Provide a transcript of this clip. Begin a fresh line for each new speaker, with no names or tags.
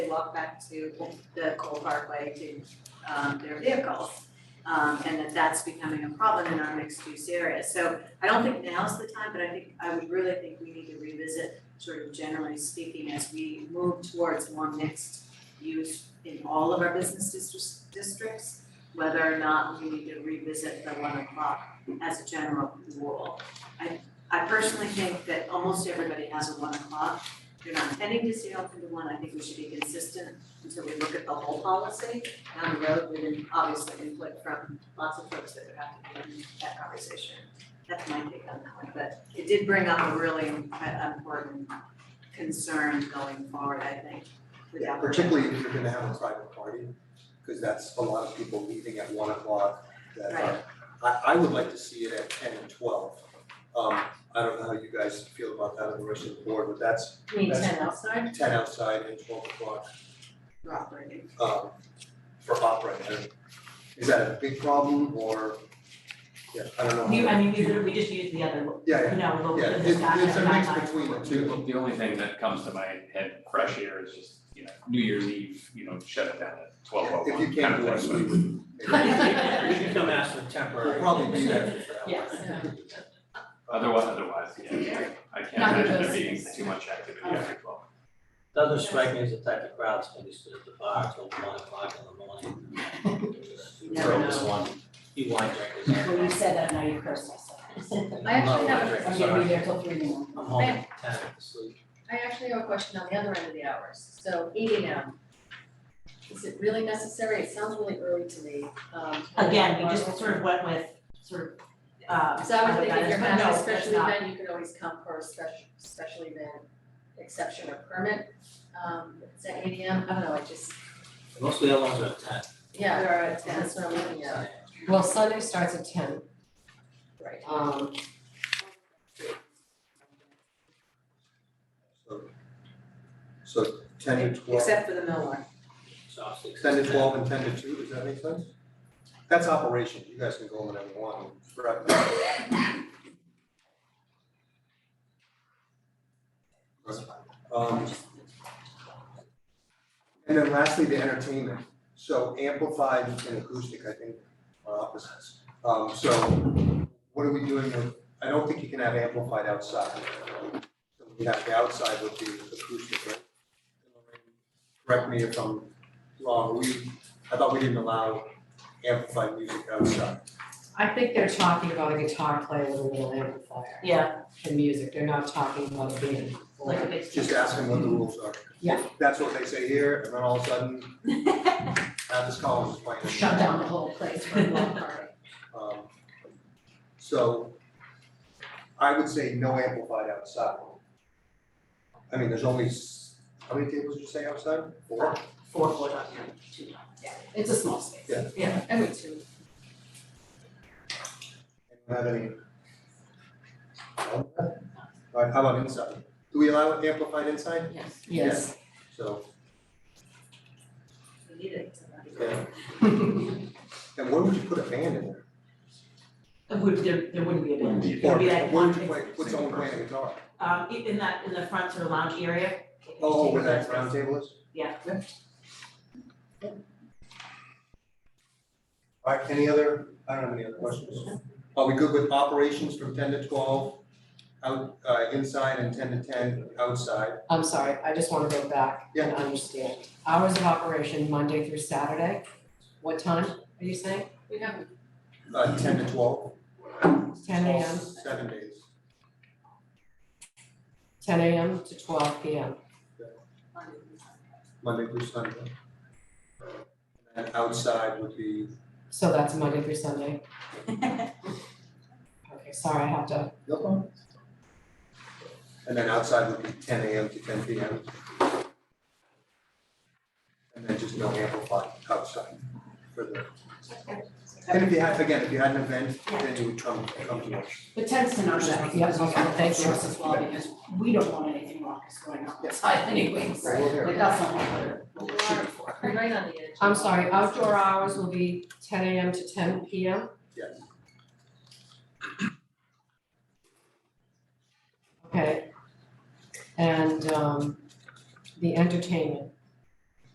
walk back to the coal parkway to um their vehicles. Um and that that's becoming a problem in our mixed use area. So I don't think now's the time, but I think I would really think we need to revisit sort of generally speaking as we move towards more mixed use in all of our business districts districts, whether or not we need to revisit the one o'clock as a general rule. I I personally think that almost everybody has a one o'clock. If you're not intending to stay open to one, I think we should be consistent until we look at the whole policy down the road with obviously input from lots of folks that would have to be in that conversation. That's my take on that one, but it did bring up a really im- important concern going forward, I think, with
Yeah,
that.
particularly if you're gonna have a private party, because that's a lot of people leaving at one o'clock that are-
Right.
I I would like to see it at ten and twelve. Um, I don't know how you guys feel about that on the rest of the board, but that's
You mean
That's-
ten outside?
ten outside and twelve o'clock
We're operating.
um for opera. And Is that a big problem or, yeah, I don't know.
We, I mean, we literally, we just used the other,
Yeah,
you
yeah,
know, local,
yeah,
the
it's it's a mix
guidelines.
between the two.
The, the only thing that comes to my head fresh air is just, you know, New Year's Eve, you know, shut it down at twelve oh
If you
one kind
can't
of
do it, we
thing.
would.
We can come ask for
We'll
temporary.
probably be there for that.
Yes.
Otherwise, otherwise, yeah, I can't
Not
imagine there
because-
being too much activity after twelve.
Doesn't strike me as the type of crowd that's gonna be stood at the bar till one o'clock in the morning.
Never
For this one, you wine drinkers.
Well, you said that, now you're cursed, I said.
I actually
No,
have, a-
I'm gonna be there till three in the morning.
I'm home at ten, asleep.
I actually have a question on the other end of the hours, so eight AM. Is it really necessary? It sounds really early to me, um.
Again, we just sort of went with sort of, uh,
So I was
other
thinking if you're
guidance, but
having
no,
a
that's
special
not.
event, you could always come for a special, special event exception or permit. Um, is that eight AM? I don't know, I just,
Most of the other ones are at ten.
yeah,
There are ten.
that's what I'm looking at,
Well, Sunday starts at ten,
right?
um,
So- So ten to twelve.
Except for the mill one.
So I'll stick
Ten to twelve and ten to two, does that make sense? That's operation, you guys can go whenever you want, correct? Um, And then lastly, the entertainment, so amplified and acoustic, I think, are opposites. Um, so what are we doing with, I don't think you can have amplified outside. So We have the outside would be acoustic, right? Correct me if I'm wrong, we, I thought we didn't allow amplified music outside.
I think they're talking about a guitar player with a little amplifier
Yeah,
and music, they're not talking about a band.
like a big.
Just ask them what the rules are.
Yeah.
That's what they say here, and then all of a sudden, now this college is playing.
Shut
Down the whole place for a long party.
Um, So I would say no amplified outside. I mean, there's only, s- how many tables did you say outside? Four?
Four, four, not nine, two, nine. yeah, it's a small space.
Yeah.
Yeah.
I would too.
Anyone Have any? No? All right, how about inside? Do we allow amplified inside?
Yes.
Yes,
So,
We need it.
yeah. And where would you put a band in there?
It would, there, there wouldn't be a band, it
Or
would be like
where would
one,
you play, put someone playing a guitar?
um, in in that, in the front sort of lounge area.
Oh, where that round table is?
Yeah.
All right, any other, I don't have any other questions. Are we good with operations from ten to twelve, out, uh, inside and ten to ten, outside?
I'm sorry, I just wanna go back and
Yeah.
understand. Hours of operation, Monday through Saturday, what time are you saying?
We haven't,
Uh, ten to twelve?
Ten AM,
Seven days.
ten AM to twelve PM.
Monday through Sunday. And outside would be,
So that's Monday through Sunday. Okay, sorry, I have to,
no problem. And then outside would be ten AM to ten PM. And then just no amplified outside for the, and if you had, again, if you had an event, then you would come, come to us.
But tends to not
yeah, okay, thank you.
as well, because we don't want anything raucous going on outside anyways,
Right.
like that's not what we're, what we're shooting for.
we're right on the edge.
I'm sorry, outdoor hours will be ten AM to ten PM?
Yes.
Okay. And um the entertainment,